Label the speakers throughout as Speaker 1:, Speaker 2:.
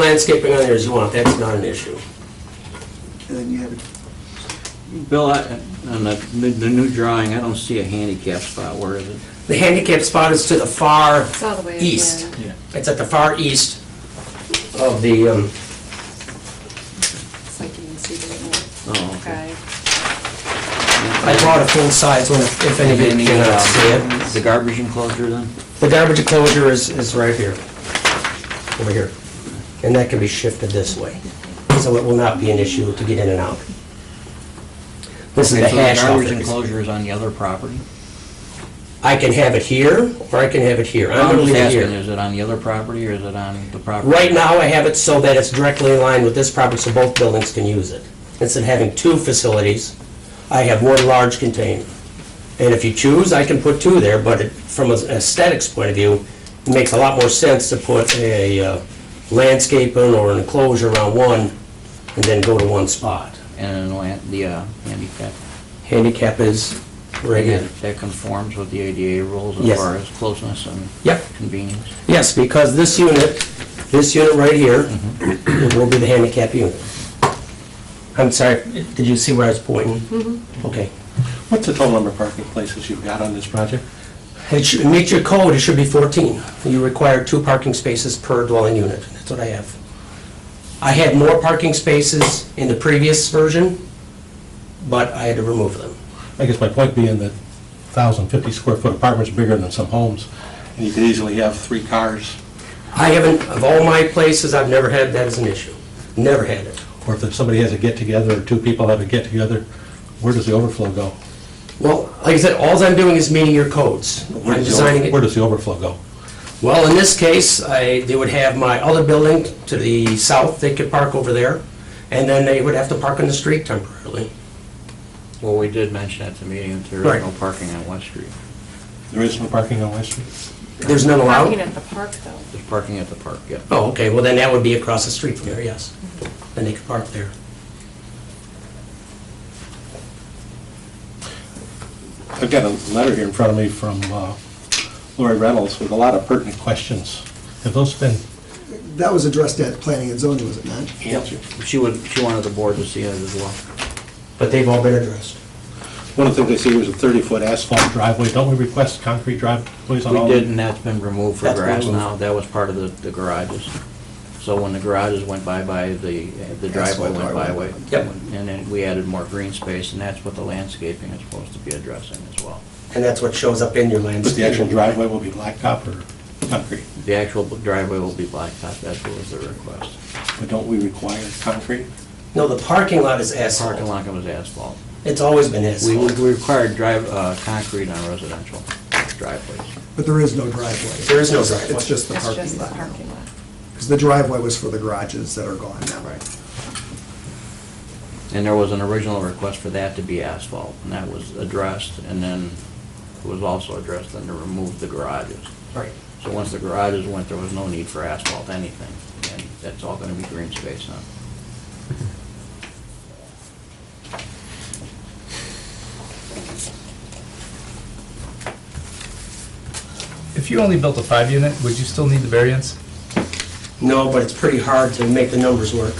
Speaker 1: landscaping on there as you want, that's not an issue.
Speaker 2: And then you have it,
Speaker 3: Bill, I- on the, the new drawing, I don't see a handicap spot, where is it?
Speaker 1: The handicap spot is to the far
Speaker 4: It's all the way. at the
Speaker 1: east.
Speaker 4: end.
Speaker 1: It's at the far east of the, um,
Speaker 4: It's like you can see the
Speaker 3: Oh,
Speaker 4: little guy.
Speaker 1: I brought a full size one if if anybody cannot see it.
Speaker 3: uh, The garbage enclosure then?
Speaker 1: The garbage enclosure is, is right here, over here. And that can be shifted this way, so it will not be an issue to get in and out. This is
Speaker 3: Okay,
Speaker 1: the
Speaker 3: so
Speaker 1: hash
Speaker 3: Garbage
Speaker 1: office.
Speaker 3: enclosure is on the other property?
Speaker 1: I can have it here, or I can have it here. I'm
Speaker 3: I'm
Speaker 1: gonna leave
Speaker 3: just
Speaker 1: it
Speaker 3: asking,
Speaker 1: here.
Speaker 3: is it on the other property or is it on the property?
Speaker 1: Right now, I have it so that it's directly in line with this property, so both buildings can use it. Instead of having two facilities, I have one large container. And if you choose, I can put two there, but it- from an aesthetics point of view, it makes a lot more sense to put a uh, landscaping or an enclosure around one and then go to one spot.
Speaker 3: And the land- the uh, handicap?
Speaker 1: Handicap is right here.
Speaker 3: That- That conforms with the ADA rules
Speaker 1: Yes.
Speaker 3: as far as closeness and
Speaker 1: Yep.
Speaker 3: convenience?
Speaker 1: Yes, because this unit, this unit right here, it will be the handicap unit. I'm sorry, did you see where I was pointing? Okay.
Speaker 5: What's the total number of parking places you've got on this project?
Speaker 1: It should, meet your code, it should be 14. You require two parking spaces per dwelling unit, that's what I have. I had more parking spaces in the previous version, but I had to remove them.
Speaker 5: I guess my point being that 1,050 square foot apartment's bigger than some homes, and you could easily have three cars,
Speaker 1: I haven't, of all my places, I've never had that as an issue, never had it.
Speaker 5: or if somebody has a get-together, or two people have a get-together, where does the overflow go?
Speaker 1: Well, like I said, alls I'm doing is meeting your codes.
Speaker 5: Where
Speaker 1: I'm
Speaker 5: does the over-
Speaker 1: designing it.
Speaker 5: Where does the overflow go?
Speaker 1: Well, in this case, I, they would have my other building to the south, they could park over there, and then they would have to park on the street temporarily.
Speaker 3: Well, we did mention at the meeting that there
Speaker 1: Right.
Speaker 3: is no parking on West Street.
Speaker 5: There is no parking on West Street?
Speaker 1: There's none
Speaker 4: Parking
Speaker 1: allowed?
Speaker 4: at the park though.
Speaker 3: There's parking at the park, yeah.
Speaker 1: Oh, okay, well then that would be across the street from there, yes. Then they could park there.
Speaker 5: I've got a letter here in front of me from uh, Lori Reynolds with a lot of pertinent questions. Have those been
Speaker 2: that was addressed at planning and zoning, was it not?
Speaker 5: answered?
Speaker 3: She would, she wanted the board to see it as well.
Speaker 1: But they've all been addressed.
Speaker 5: One of the things I see here is a 30-foot asphalt driveway. Don't we request concrete driveways on all?
Speaker 3: We did, and that's been removed for
Speaker 1: That's been
Speaker 3: grass
Speaker 1: removed.
Speaker 3: now, that was part of the, the garages. So when the garages went bye-bye, the, the driveway
Speaker 2: Asphalt
Speaker 3: went
Speaker 2: driveway.
Speaker 3: byway.
Speaker 1: Yep.
Speaker 3: And then we added more green space, and that's what the landscaping is supposed to be addressing as well.
Speaker 1: And that's what shows up in your
Speaker 5: But
Speaker 1: landscape.
Speaker 5: the actual driveway will be blacktop or concrete?
Speaker 3: The actual driveway will be blacktop, that's what was the request.
Speaker 5: But don't we require concrete?
Speaker 1: No, the parking lot is
Speaker 3: Parking
Speaker 1: asphalt.
Speaker 3: lot was asphalt.
Speaker 1: It's always been
Speaker 3: We
Speaker 1: asphalt.
Speaker 3: we required drive, uh, concrete on residential driveways.
Speaker 2: But there is no driveway.
Speaker 1: There is no driveway.
Speaker 2: It's just the
Speaker 4: That's just
Speaker 2: parking
Speaker 4: the
Speaker 2: lot now.
Speaker 4: parking lot.
Speaker 2: Because the driveway was for the garages that are gone now.
Speaker 3: Right. And there was an original request for that to be asphalt, and that was addressed, and then it was also addressed, and to remove the garages.
Speaker 1: Right.
Speaker 3: So once the garages went, there was no need for asphalt, anything, and that's all gonna be green space now.
Speaker 6: If you only built a five unit, would you still need the variance?
Speaker 1: No, but it's pretty hard to make the numbers work.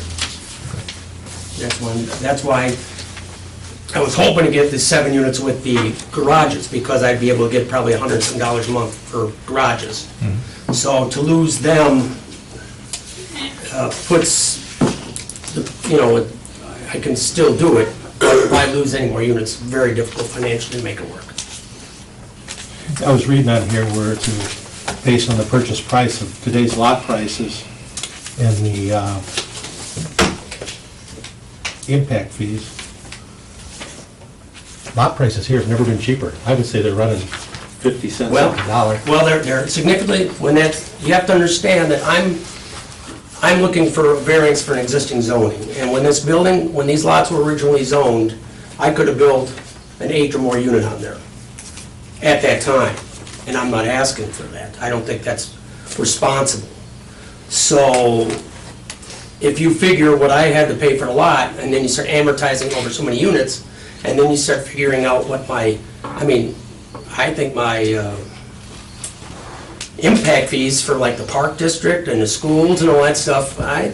Speaker 1: That's one, that's why I was hoping to get the seven units with the garages, because I'd be able to get probably a hundred and some dollars a month for garages. So to lose them uh, puts, the- you know, I can still do it, but if I lose any more units, very difficult financially to make it work.
Speaker 5: I was reading on here where to, based on the purchase price of today's lot prices and the uh, impact fees, lot prices here have never been cheaper. I would say they're running 50 cents
Speaker 1: Well-
Speaker 5: on the dollar.
Speaker 1: Well, they're, they're significantly, when that's, you have to understand that I'm, I'm looking for a variance for an existing zoning. And when this building, when these lots were originally zoned, I could have built an eight or more unit on there at that time. And I'm not asking for that. I don't think that's responsible. So if you figure what I had to pay for the lot, and then you start amortizing over so many units, and then you start figuring out what my, I mean, I think my, uh, impact fees for like the park district and the schools and all that stuff, I